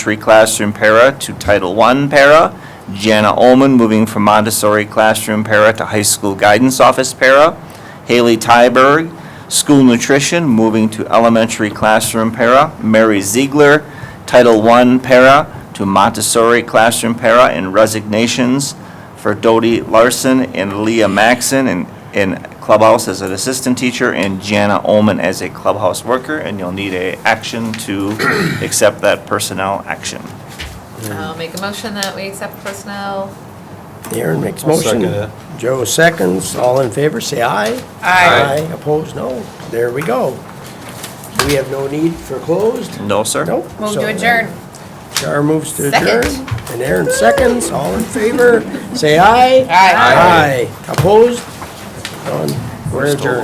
Montessori classroom para to Title I para. Jana Ullman moving from Montessori classroom para to high school guidance office para. Haley Tyberg, school nutrition, moving to elementary classroom para. Mary Ziegler, Title I para to Montessori classroom para. And resignations for Dodie Larson and Leah Maxon in, in clubhouse as an assistant teacher and Jana Ullman as a clubhouse worker. And you'll need a action to accept that personnel action. I'll make a motion that we accept personnel. Aaron makes I'll second motion. it. Joe seconds. All in favor, say aye. Aye. Aye, opposed, no. There we go. Do we have no need for closed? No, sir? Nope. Move So to then, adjourn. Char moves to Second. adjourn. And Aaron seconds. All in favor, say aye. Aye. Aye. Opposed? Done. We're adjourned.